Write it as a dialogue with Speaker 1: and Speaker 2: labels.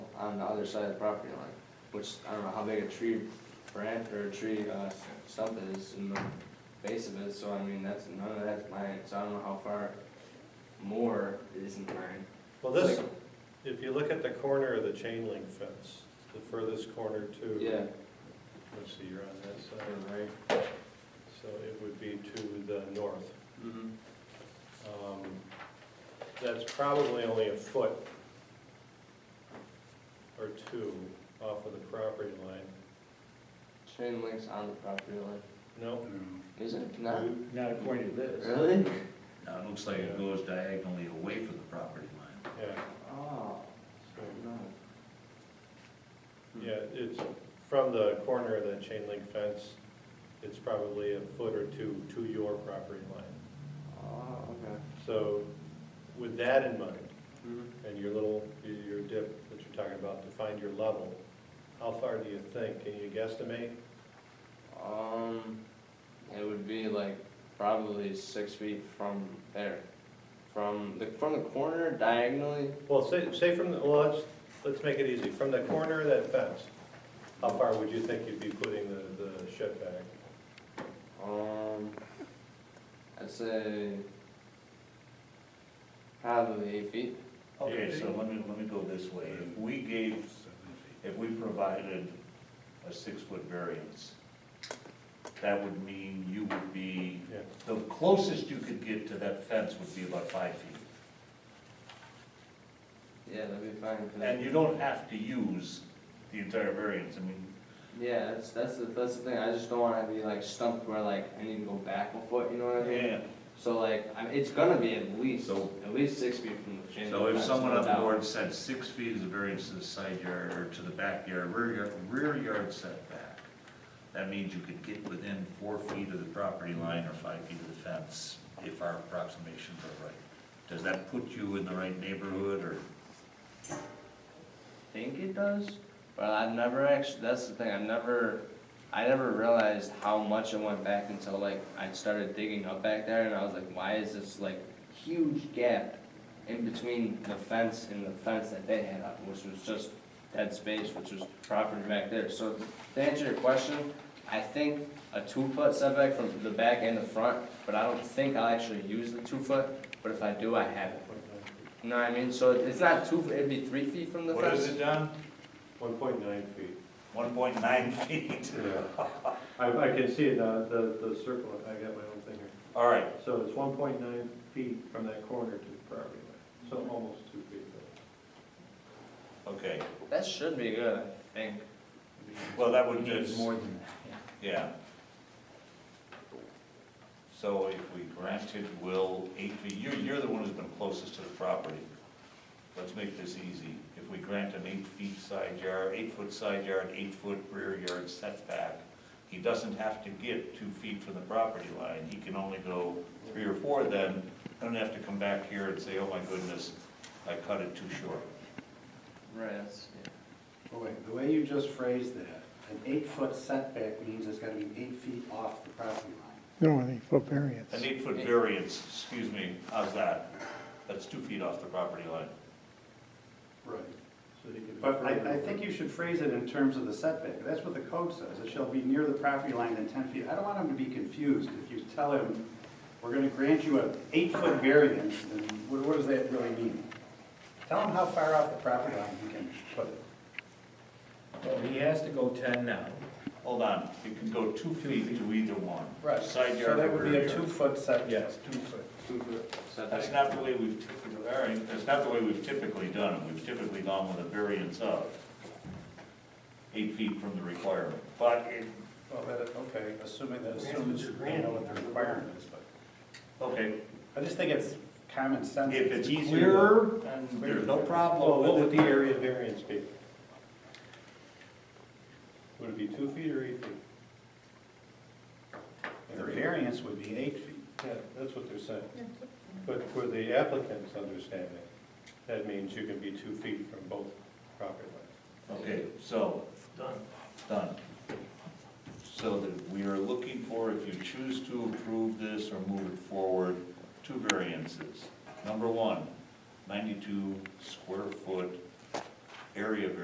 Speaker 1: on the other side of the property line, which I don't know how big a tree branch or a tree, uh, stump is in the base of it, so I mean, that's, none of that's mine, so I don't know how far more isn't mine.
Speaker 2: Well, this, if you look at the corner of the chain link fence, the furthest corner to.
Speaker 1: Yeah,
Speaker 2: Let's see, you're on that side,
Speaker 1: yeah, right.
Speaker 2: so it would be to the north.
Speaker 1: Mm-hmm.
Speaker 2: Um, That's probably only a foot or two off of the property line.
Speaker 1: Chain link's on the property line.
Speaker 2: No?
Speaker 1: Is it? No?
Speaker 3: Not according to this.
Speaker 1: Really?
Speaker 4: Now, it looks like it goes diagonally away from the property line.
Speaker 2: Yeah,
Speaker 1: Oh,
Speaker 2: so,
Speaker 1: no.
Speaker 2: yeah, it's from the corner of that chain link fence, it's probably a foot or two to your property line.
Speaker 1: Oh, okay.
Speaker 2: So with that in mind,
Speaker 1: Mhm.
Speaker 2: and your little, your dip that you're talking about to find your level, how far do you think? Can you guesstimate?
Speaker 1: Um, it would be like probably six feet from there, from the from the corner diagonally.
Speaker 2: Well, say, say from, the well, let's, let's make it easy. From the corner of that fence, how far would you think you'd be putting the, the shed back?
Speaker 1: Um, I'd say probably eight feet.
Speaker 4: Okay, so let me, let me go this way. If we gave, if we provided a six-foot variance, that would mean you would be,
Speaker 2: Yeah.
Speaker 4: the closest you could get to that fence would be about five feet.
Speaker 1: Yeah, that'd be fine. 'cause-
Speaker 4: And you don't have to use the entire variance. I mean,
Speaker 1: yeah, that's that's the that's the thing. I just don't want to be like stumped where like I need to go back a foot. You know what I mean?
Speaker 4: yeah.
Speaker 1: So like I it's gonna be at least
Speaker 4: So-
Speaker 1: at least six feet from the chain.
Speaker 4: So
Speaker 1: link
Speaker 4: if
Speaker 1: fence,
Speaker 4: someone
Speaker 1: no
Speaker 4: on the
Speaker 1: doubt.
Speaker 4: board said six feet is a variance to the side yard or to the backyard, rear yard, rear yard setback, that means you could get within four feet of the property line or five feet of the fence if our approximations are right. Does that put you in the right neighborhood or?
Speaker 1: think it does, but I've never actually, that's the thing, I've never, I never realized how much it went back until like I started digging up back there and I was like, why is this like huge gap in between the fence and the fence that they had up, which was just dead space, which was property back there. So to answer your question, I think a two foot setback from the back and the front, but I don't think I'll actually use the two foot, but if I do, I have it. You know what I mean? So it's not two, it'd be three feet from the fence.
Speaker 4: What is it, Don?
Speaker 2: One point nine feet.
Speaker 4: One point nine feet.
Speaker 2: I, I can see the, the, the circle, I got my own thing here.
Speaker 4: All right,
Speaker 2: So it's one point nine feet from that corner to the property line, so almost two feet.
Speaker 4: okay.
Speaker 1: That should be good, I think.
Speaker 4: Well, that would just,
Speaker 3: More than that.
Speaker 4: yeah. So if we granted Will eight feet, you're, you're the one who's been closest to the property. Let's make this easy. If we grant an eight feet side yard, eight foot side yard, eight foot rear yard setback, he doesn't have to get two feet from the property line. He can only go three or four then, don't have to come back here and say, oh my goodness, I cut it too short.
Speaker 1: Right, that's, yeah.
Speaker 5: Oh, wait, the way you just phrased that, an eight-foot setback means it's gotta be eight feet off the property line.
Speaker 6: No, an eight-foot variance.
Speaker 4: An eight-foot variance, excuse me, how's that? That's two feet off the property line.
Speaker 5: Right.
Speaker 2: So you could-
Speaker 5: But I, I think you should phrase it in terms of the setback, that's what the code says, it shall be near the property line than ten feet. I don't want him to be confused if you tell him, we're gonna grant you an eight-foot variance, then what, what does that really mean? Tell him how far off the property line you can put it.
Speaker 3: Well, he has to go ten now.
Speaker 4: Hold on, you can go two feet to either one. Side
Speaker 5: So
Speaker 4: yard
Speaker 5: that
Speaker 4: or
Speaker 5: would be
Speaker 4: rear
Speaker 5: a
Speaker 4: yard.
Speaker 5: two-foot setback.
Speaker 3: Yes.
Speaker 5: Two-foot.
Speaker 4: That's not the way we've typically, all right, that's not the way we've typically done it. We've typically gone with a variance of eight feet from the requirement. But it,
Speaker 5: Well, that, okay, assuming that, assumes, you know what the requirement is, but
Speaker 4: okay,
Speaker 5: I just think it's common sense.
Speaker 4: if it's
Speaker 5: easier.
Speaker 4: clearer, then there's no
Speaker 2: Well,
Speaker 4: problem
Speaker 2: what
Speaker 4: with
Speaker 2: would
Speaker 4: it.
Speaker 2: the area variance be? Would it be two feet or eight feet?
Speaker 5: The variance would be eight feet.
Speaker 2: Yeah, that's what they're saying. But for the applicant's understanding, that means you can be two feet from both property lines.
Speaker 4: Okay, so. Done. Done. So that we are looking for, if you choose to approve this or move it forward, two variances. Number one, ninety-two square foot area variance.